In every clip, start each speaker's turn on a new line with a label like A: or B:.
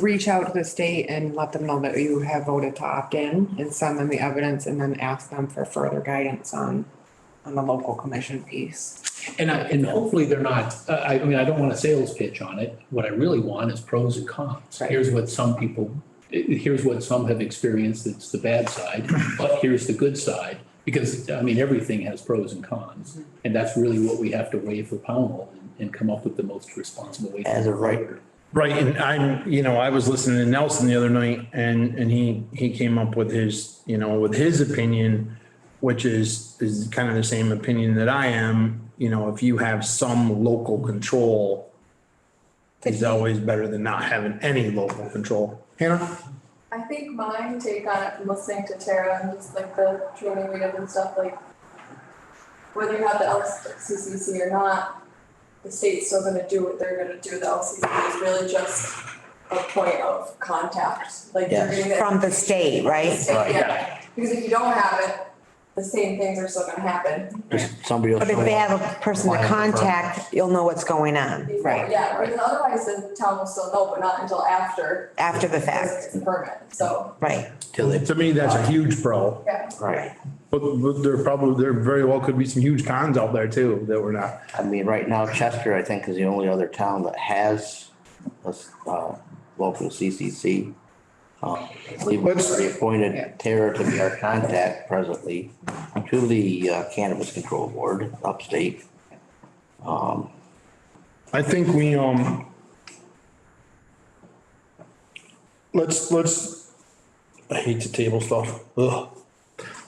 A: reach out to the state and let them know that you have voted to opt in and send them the evidence and then ask them for further guidance on, on the local commission piece.
B: And I, and hopefully they're not, uh, I, I mean, I don't want a sales pitch on it. What I really want is pros and cons.
A: Right.
B: Here's what some people, here's what some have experienced, that's the bad side, but here's the good side. Because, I mean, everything has pros and cons, and that's really what we have to weigh for Pownell and- and come up with the most responsible way. to
C: As of right.
D: Right, and I'm, you know, I was listening to Nelson the other night and, and he, he came up with his, you know, with his opinion, which is, is kind of the same opinion that I am, you know, if you have some local control, it's always better than not having any local control. Hannah?
E: I think my take on it from listening to Tara and just like the training we did and stuff, like whether you have the LCCC or not, the state's still gonna do what they're gonna do. The LCCC is really just a point of contact, like you're
C: Yes.
E: getting the.
F: From the state, right?
C: Right.
E: Yeah, because if you don't have it, the same things are still gonna happen.
C: Just somebody else.
F: But if they have a person to
C: Client referral.
F: contact, you'll know what's going on
A: Right.
E: Yeah, because otherwise the town will still know, but not until after.
F: after the
E: because
F: fact,
E: it's a Permit, so,
F: right?
C: Till they,
D: To me, that's a huge pro,
E: yeah.
C: right.
D: but, but there probably, there very well could be some huge cons out there too that we're not.
C: I mean, right now Chester, I think, is the only other town that has a, s- uh, local CCC. Um, We've
D: Let's-
C: already
A: Yeah.
C: appointed Tara to be our contact presently to the uh, Cannabis Control Board upstate. Um,
D: I think we, um, let's, let's, I hate to table stuff, ugh.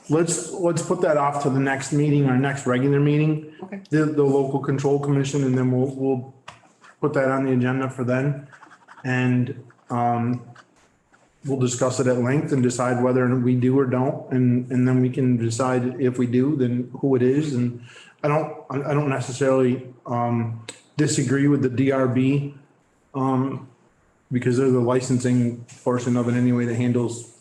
D: Let's, let's put that off to the next meeting, our next regular meeting.
A: Okay.
D: The, the local control commission, and then we'll, we'll put that on the agenda for then. And, um, we'll discuss it at length and decide whether we do or don't, and, and then we can decide if we do, then who it is, and I don't, I I don't necessarily, um, disagree with the DRB, um, because they're the licensing portion of it anyway that handles,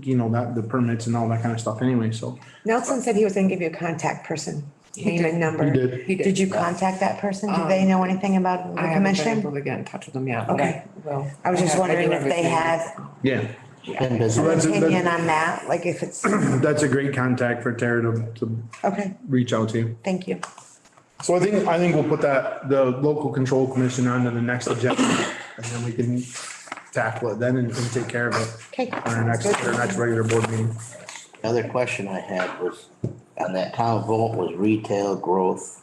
D: you know, that, the permits and all that kind of stuff anyway, so.
F: Nelson said he was gonna give you a contact person, name and number.
D: He did.
A: He did.
F: Did you contact that person? Do
A: Um,
F: they know anything about the
A: I haven't been able
F: commission?
A: to get in touch with them yet.
F: Okay.
A: Well.
F: I was just
A: have- do
F: wondering if
A: everything.
F: they had
D: Yeah,
C: And does,
D: So
F: an
D: that's- that's-
F: opinion on that, like if it's,
D: that's a great contact for Tara to, to
F: okay,
D: reach out to.
F: thank you.
D: So I think, I think we'll put that, the local control commission onto the next agenda, and then we can tackle it then and, and take care of it.
F: Okay.
D: on our next, our next regular board meeting.
C: another question I had was, on that town vote was retail growth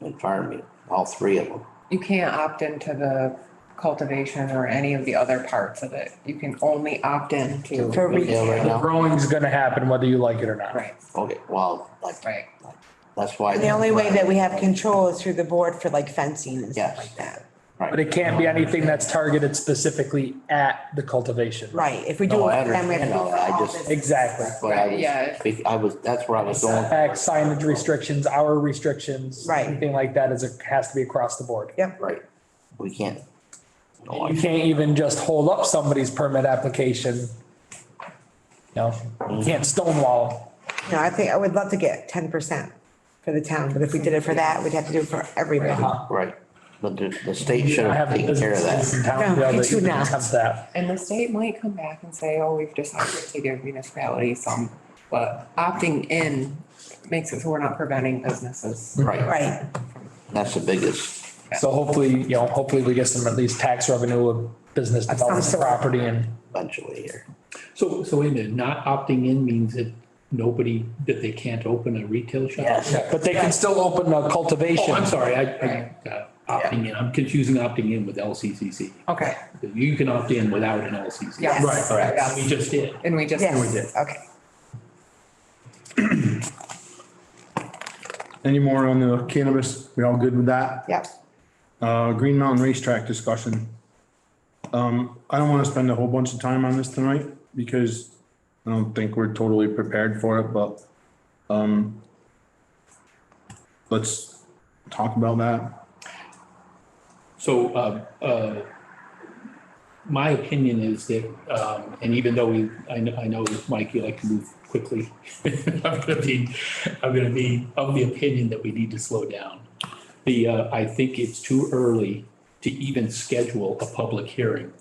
C: and farming, all three of them.
A: You can't opt into the cultivation or any of the other parts of it. You can only opt in to,
F: For
C: Retail right
F: retail.
C: now?
G: Growing's gonna happen whether you like it or not.
A: right,
C: Okay, well, like,
A: right.
C: that's why.
F: The only way that we have control is through the board for like fencing and stuff
C: Yes.
F: like that.
G: But it can't be anything that's targeted specifically at the cultivation.
F: Right, if we do
C: No, I
F: it, then we have to do
C: understand all
F: it
C: that. I
F: for all
C: just-
F: business.
G: Exactly.
C: But I
A: Yeah.
C: was, be- I was, that's where I was going.
G: Setbacks, signage restrictions, hour restrictions.
F: Right.
G: Anything like that is, a has to be across the board.
C: Right, we can't. No,
G: You
C: Oh, I-
G: can't even just hold up somebody's permit application. No,
C: Mm-hmm.
G: you can't stonewall 'em.
F: No, I think, I would love to get ten percent for the town, but if we did it for that, we'd have to do it for everybody.
C: Right, but the, the state
G: You
C: should
G: don't
C: have
G: have
C: taken care of
G: businesses
C: that.
G: in town,
F: No,
G: you know,
F: you
G: that
F: do
G: even
F: not.
G: have that.
A: And the state might come back and say, oh, we've decided to give municipalities some, but opting in makes it so we're not preventing businesses.
C: Right,
F: Right,
C: that's the biggest.
G: So hopefully, you know, hopefully we get some at least tax revenue of business
F: some
G: development
F: sort.
G: property and.
C: eventually here.
B: So, so wait a minute, not opting in means that nobody, that they can't open a retail shop?
G: But they can still open a cultivation.
B: Oh, I'm sorry, I, I, uh, opting in, I'm confusing opting in with LCCC.
A: Okay,
B: You can opt in without an LCC.
A: Yes.
F: Right,
B: Right, right, we just did.
A: and we just.
F: yes, okay.
D: Any more on the cannabis? We all good with that?
F: Yep.
D: Uh, Green Mountain Racetrack discussion. Um, I don't wanna spend a whole bunch of time on this tonight because I don't think we're totally prepared for it, but, um, let's talk about that.
B: So, uh, uh, my opinion is that, um, and even though we, I know, I know, Mike, you like to move quickly. I'm gonna be, I'm gonna be of the opinion that we need to slow down. The, uh, I think it's too early to even schedule a public hearing